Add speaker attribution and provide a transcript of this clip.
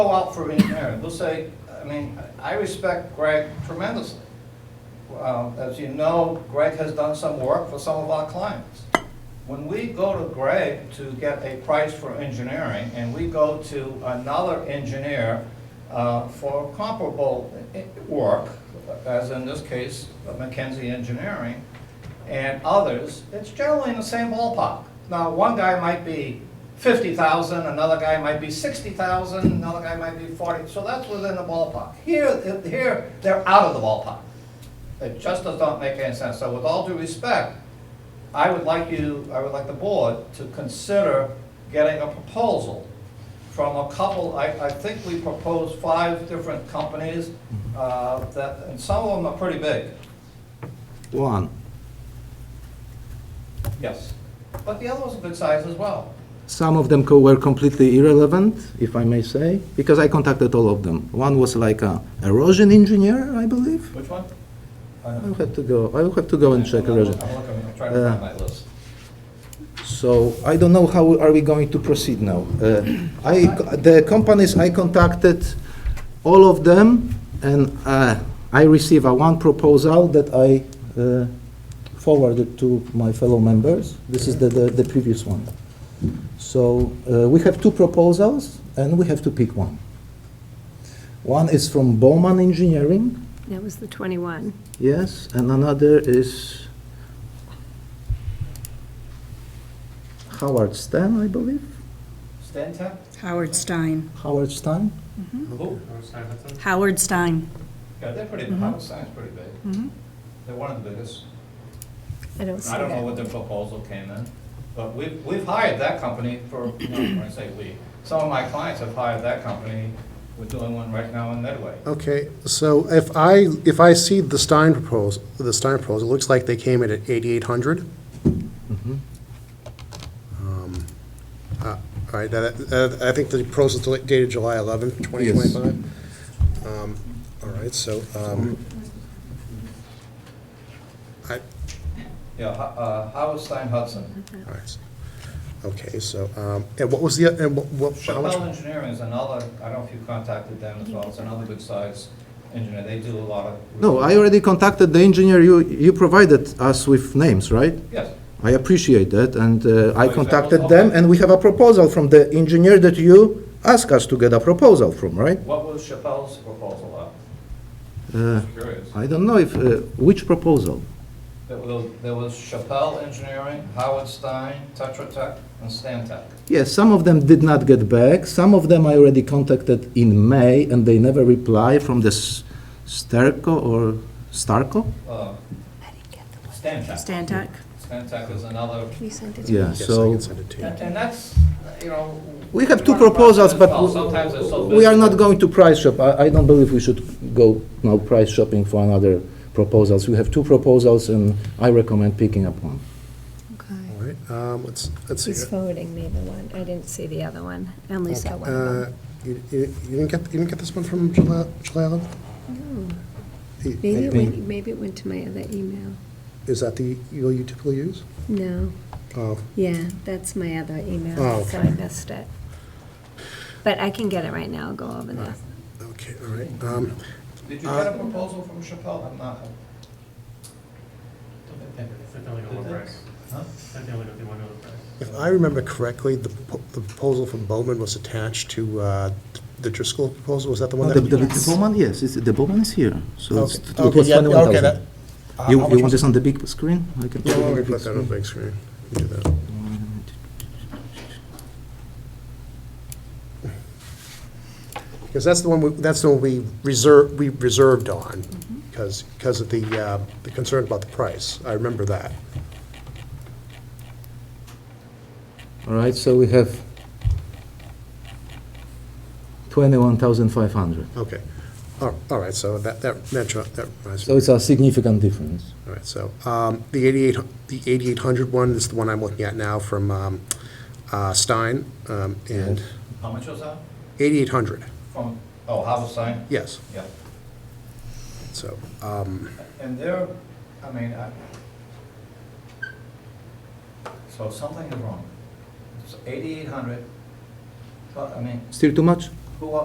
Speaker 1: go out for an error, they'll say, I mean, I respect Greg tremendously. Uh, As you know, Greg has done some work for some of our clients. When we go to Greg to get a price for engineering, and we go to another engineer uh, for comparable i- i- work, as in this case, McKenzie Engineering, and others, it's generally in the same ballpark. Now, one guy might be fifty thousand, another guy might be sixty thousand, another guy might be forty, so that's within the ballpark. Here, here, they're out of the ballpark. It just does not make any sense. So with all due respect, I would like you, I would like the board to consider getting a proposal from a couple, I, I think we proposed five different companies, uh, that, and some of them are pretty big,
Speaker 2: One.
Speaker 1: yes. But the other was a good size as well.
Speaker 2: Some of them co- were completely irrelevant, if I may say, because I contacted all of them. One was like a erosion engineer, I believe.
Speaker 1: Which one?
Speaker 2: I'll have to go. I'll have to go and check erosion.
Speaker 1: I'm looking, I'm trying to
Speaker 2: Uh,
Speaker 1: find my list.
Speaker 2: So I don't know how are we going to proceed now. Uh, I, the companies I contacted, all of them, and uh, I receive a one proposal that I uh, forwarded to my fellow members. This is the, the, the previous one. So uh, we have two proposals, and we have to pick one. One is from Bowman Engineering,
Speaker 3: That was the 21.
Speaker 2: yes, and another is Howard Stan, I believe.
Speaker 1: Stantec?
Speaker 4: Howard Stein.
Speaker 2: Howard Stein?
Speaker 1: Who?
Speaker 4: Howard Stein.
Speaker 1: Yeah, they're pretty, Howard Stein's pretty big. They're one of the biggest.
Speaker 3: I don't see
Speaker 1: I
Speaker 3: that.
Speaker 1: don't know what their proposal came in, but we've, we've hired that company for, no, when I say we, some of my clients have hired that company. We're doing one right now in Medway.
Speaker 5: Okay, so if I, if I see the Stein proposal, the Stein proposal, it looks like they came in at eighty-eight hundred. Um, uh, All right, that, that- I think the proposal dated July eleventh, twenty twenty-five. Um, All right, so, um, I,
Speaker 1: Yeah, Ho- uh, Howard Stein Hudson.
Speaker 5: all right, so- okay, so, um, and what was the, and what- what, how
Speaker 1: Chappelle
Speaker 5: much?
Speaker 1: Engineering is another, I don't know if you contacted them as well, it's another good size engineer, they do a lot of.
Speaker 2: No, I already contacted the engineer, you, you provided us with names, right?
Speaker 1: Yes,
Speaker 2: I appreciate that, and uh, I
Speaker 1: Okay.
Speaker 2: contacted them, and we have a proposal from the engineer that you asked us to get a proposal from, right?
Speaker 1: what was Chappelle's proposal
Speaker 2: Uh,
Speaker 1: at? Curious.
Speaker 2: I don't know if, uh, which proposal?
Speaker 1: There was there was Chappelle Engineering, Howard Stein, Tetra Tech, and Stantec.
Speaker 2: Yes, some of them did not get back, some of them I already contacted in May, and they never reply from the S- Sterco or Starco?
Speaker 1: Uh, Stantec.
Speaker 4: Stantec.
Speaker 1: Stantec is another
Speaker 3: You sent it to me.
Speaker 2: Yeah,
Speaker 5: Yes, I
Speaker 2: so,
Speaker 5: can send it to you.
Speaker 1: And and that's, you know.
Speaker 2: we have two
Speaker 1: part of the
Speaker 2: proposals,
Speaker 1: process
Speaker 2: but
Speaker 1: as well. Sometimes it's so
Speaker 2: w- we are not
Speaker 1: busy.
Speaker 2: going to price shop. I, I don't believe we should go now price shopping for another proposals. We have two proposals, and I recommend picking up one.
Speaker 3: Okay.
Speaker 5: All right, um, let's, let's see.
Speaker 3: He's forwarding me the one. I didn't see the other one. I only saw one of
Speaker 5: Uh,
Speaker 3: them.
Speaker 5: You you- you didn't get, you didn't get this one from July July 11th? The-
Speaker 3: Maybe it
Speaker 5: the-
Speaker 3: went, maybe it went to my other email.
Speaker 5: Is that the email you typically use?
Speaker 3: No,
Speaker 5: Oh,
Speaker 3: yeah, that's my other email,
Speaker 5: Oh,
Speaker 3: so I
Speaker 5: okay.
Speaker 3: missed it. But I can get it right now. I'll go over that.
Speaker 5: okay, all right. Um,
Speaker 1: Did you get a proposal from Chappelle? I'm not.
Speaker 6: Certainly got one price.
Speaker 1: Huh?
Speaker 6: Certainly got the one other price.
Speaker 5: If I remember correctly, the po- the proposal from Bowman was attached to uh, the Driscoll proposal, was that the one
Speaker 2: No,
Speaker 5: that?
Speaker 2: Oh, the, the, the
Speaker 4: Yes.
Speaker 2: Bowman, yes, it's, the Bowman is here. So it's,
Speaker 5: Okay,
Speaker 2: it
Speaker 5: okay,
Speaker 2: was
Speaker 5: yeah,
Speaker 2: twenty-one
Speaker 5: okay, that-
Speaker 2: thousand.
Speaker 5: uh,
Speaker 2: You,
Speaker 5: how
Speaker 2: you
Speaker 5: much
Speaker 2: want
Speaker 5: was-
Speaker 2: this on the big screen? I can.
Speaker 5: Yeah,
Speaker 2: put it
Speaker 5: why
Speaker 2: on
Speaker 5: don't
Speaker 2: the
Speaker 5: we
Speaker 2: big
Speaker 5: put that on
Speaker 2: screen.
Speaker 5: big screen? We can do that. Because that's the one, we- that's the one we reserved, we reserved on, because, because of the, uh, the concern about the price. I remember that.
Speaker 2: All right, so we have twenty-one thousand five hundred.
Speaker 5: Okay. All all right, so that, that, that dri- that reminds me.
Speaker 2: So it's a significant difference.
Speaker 5: All right, so um, the 88, the 8800 one is the one I'm looking at now from um, uh, Stein, um, and
Speaker 1: How much was that?
Speaker 5: 8800,
Speaker 1: From, oh, Howard Stein?
Speaker 5: yes,
Speaker 1: Yeah.
Speaker 5: so, um,
Speaker 1: And they're, I mean, I. So something is wrong. It's eighty-eight hundred, but, I mean,
Speaker 2: Still too much?
Speaker 1: who,